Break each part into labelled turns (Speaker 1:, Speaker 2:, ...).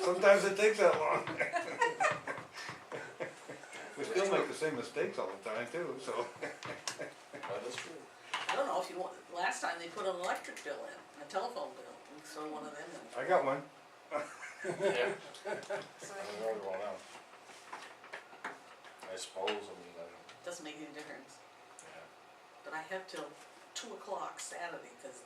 Speaker 1: Sometimes it takes that long. We still make the same mistakes all the time too, so.
Speaker 2: That is Oh, true.
Speaker 3: I don't know if you want, last time they put an electric bill in, a telephone bill, and so one of them, and
Speaker 1: I got one.
Speaker 2: Yeah,
Speaker 4: So
Speaker 2: I
Speaker 4: I
Speaker 2: don't
Speaker 4: can-
Speaker 3: Uh,
Speaker 2: know everyone else. I suppose, I mean, I don't,
Speaker 3: it doesn't make any difference.
Speaker 2: yeah.
Speaker 3: But I have till two o'clock Saturday, cause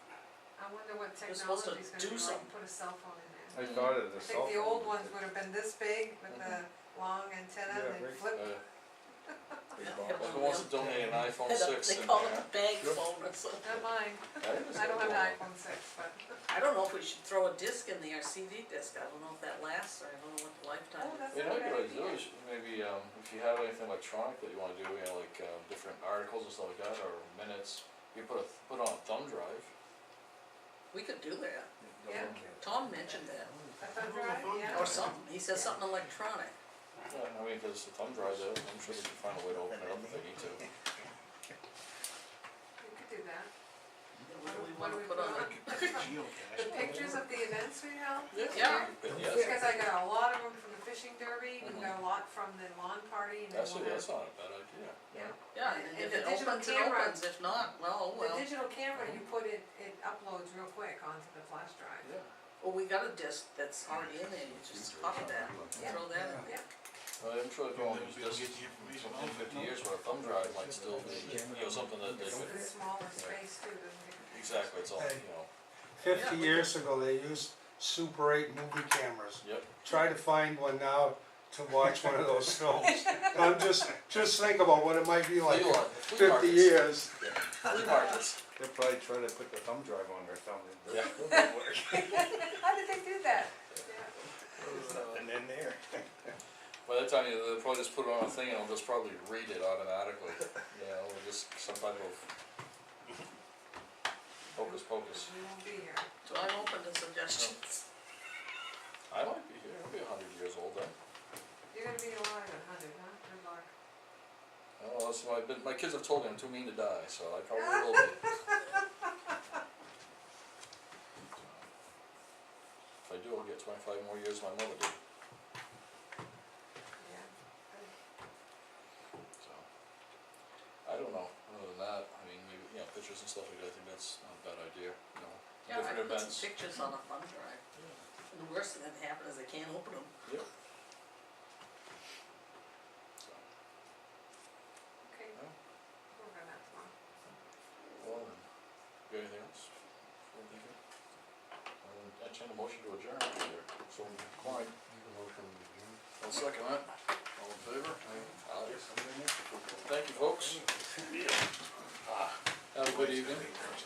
Speaker 4: I wonder what
Speaker 3: You're supposed to
Speaker 4: technology's gonna
Speaker 3: do
Speaker 4: be like,
Speaker 3: something.
Speaker 4: and put a cell phone in there.
Speaker 1: I started
Speaker 4: I
Speaker 1: a cell
Speaker 4: think Mm. the
Speaker 1: phone.
Speaker 4: old ones would have been this big with the
Speaker 3: Mm-hmm.
Speaker 4: long antenna
Speaker 1: Yeah,
Speaker 4: and
Speaker 1: big.
Speaker 4: they'd flip.
Speaker 2: Uh,
Speaker 1: Big
Speaker 3: Yeah,
Speaker 1: bomb.
Speaker 3: yeah,
Speaker 2: Who wants to donate an iPhone six
Speaker 3: they
Speaker 2: in
Speaker 3: call it
Speaker 2: there?
Speaker 3: a bag
Speaker 1: Sure.
Speaker 3: phone or something.
Speaker 4: Not mine, I don't have an iPhone six, but
Speaker 3: I don't know if we should throw a disc in there, CD disc, I don't know if that lasts, or I don't know what the lifetime
Speaker 4: Oh,
Speaker 3: is.
Speaker 4: that's-
Speaker 2: You know, what you could do is maybe, um, if you have anything electronic that you wanna do, you know, like, um, different articles and stuff like that, or minutes, you put a, put on a thumb drive.
Speaker 3: We could do that,
Speaker 4: yeah,
Speaker 3: Tom mentioned that,
Speaker 4: that's all right, yeah.
Speaker 3: or something, he says something electronic.
Speaker 2: Yeah, I mean, if there's a thumb drive there, I'm sure they can find a way to open it up if they need to.
Speaker 4: You could do that.
Speaker 3: What do we wanna
Speaker 4: What do we
Speaker 3: put
Speaker 4: put
Speaker 3: on
Speaker 4: on?
Speaker 3: it?
Speaker 4: The pictures of the events we held this
Speaker 3: Yeah. Mm-hmm.
Speaker 2: Yeah,
Speaker 4: year, because I got a lot of them from the fishing derby, we
Speaker 2: Mhm.
Speaker 4: got a lot from the lawn party and then one.
Speaker 2: actually, that's not a bad idea.
Speaker 4: Yeah.
Speaker 3: Yeah,
Speaker 4: And-
Speaker 3: and
Speaker 4: and
Speaker 3: if
Speaker 4: the
Speaker 3: it
Speaker 4: digital
Speaker 3: opens, it
Speaker 4: camera-
Speaker 3: opens, if not, well, oh well,
Speaker 4: The digital camera, you put it, it uploads real quick onto the flash drive.
Speaker 2: Yeah,
Speaker 3: well, we got a disc that's already in there, you just copy that,
Speaker 4: Yeah.
Speaker 3: throw that in.
Speaker 4: Yeah,
Speaker 2: Well, I'm sure if you only use this in fifty years, where a thumb drive might still be, you know, something that they
Speaker 4: it's a
Speaker 2: could,
Speaker 4: smaller space too, doesn't it?
Speaker 2: exactly, it's all, you know,
Speaker 3: Yeah,
Speaker 5: Fifty
Speaker 3: we
Speaker 5: years ago, they used Super eight movie cameras.
Speaker 2: yep.
Speaker 5: Try to find one now to watch one of those films. I'm just, just think about what it might be like
Speaker 2: Flea
Speaker 5: in
Speaker 2: lot- flea
Speaker 5: fifty
Speaker 2: markets.
Speaker 5: years.
Speaker 2: Yeah, flea markets,
Speaker 1: They'll probably try to put the thumb drive on or something. but
Speaker 2: yeah.
Speaker 4: How did they do that? Yeah,
Speaker 1: There's nothing in there.
Speaker 2: By the time, you they'll probably just put it on a thing and it'll just probably read it automatically, you know, or just some type of hocus pocus.
Speaker 4: you won't be here.
Speaker 3: So I'm open to suggestions.
Speaker 2: I might be here, I'll be a hundred years old then.
Speaker 4: You're gonna be alive at hundred, huh? Good luck.
Speaker 2: Oh, that's why, I've been- my kids have told me I'm too mean to die, so I probably will be. If I do, I'll get twenty-five more years than my mother did,
Speaker 4: Yeah.
Speaker 2: so. I don't know, other than that, I mean, maybe, you know, pictures and stuff like that, I think that's not a bad idea, you know,
Speaker 3: Yeah, I
Speaker 2: different
Speaker 3: put some
Speaker 2: events.
Speaker 3: pictures on a thumb drive, and the worst thing that happened is I can't open them.
Speaker 2: Yep. So,
Speaker 4: Okay,
Speaker 2: Yeah.
Speaker 4: we're gonna have tomorrow.
Speaker 2: well, then, you got anything else? Anything to do? I'll entertain a motion to adjourn, either. so Clyde, I'll second that, all in favor? Aye. Thank you, folks. Ah, Have a good evening.